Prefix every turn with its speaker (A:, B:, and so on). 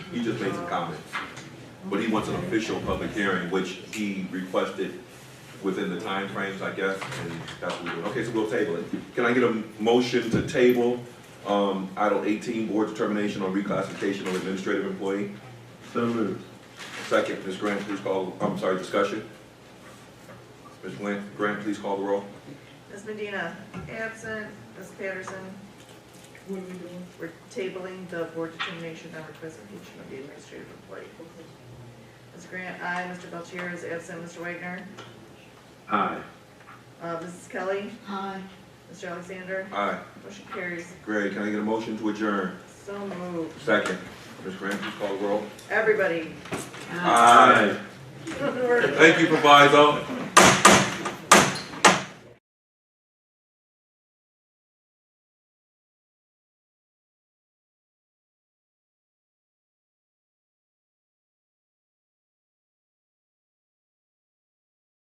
A: He just made some comments. But he wants an official public hearing, which he requested within the timeframes, I guess, and that's what we're doing. Okay, so we'll table it. Can I get a motion to table, um, item eighteen, board determination on reclassification of administrative employee?
B: So moved.
A: Second, Ms. Grant, please call, I'm sorry, discussion? Ms. Grant, Grant, please call the roll.
C: Ms. Medina, absent. Ms. Patterson. What are we doing? We're tabling the board determination on requisition of the administrative employee. Ms. Grant, aye. Mr. Belchier is absent. Mr. Wagner,
B: Aye.
C: uh, Mrs. Kelly,
D: Aye.
C: Mr. Alexander,
A: Aye.
C: motion carries.
A: Great, can I get a motion to adjourn?
C: So moved.
A: Second, Ms. Grant, please call the roll.
C: Everybody.
A: Aye. Thank you, proviso.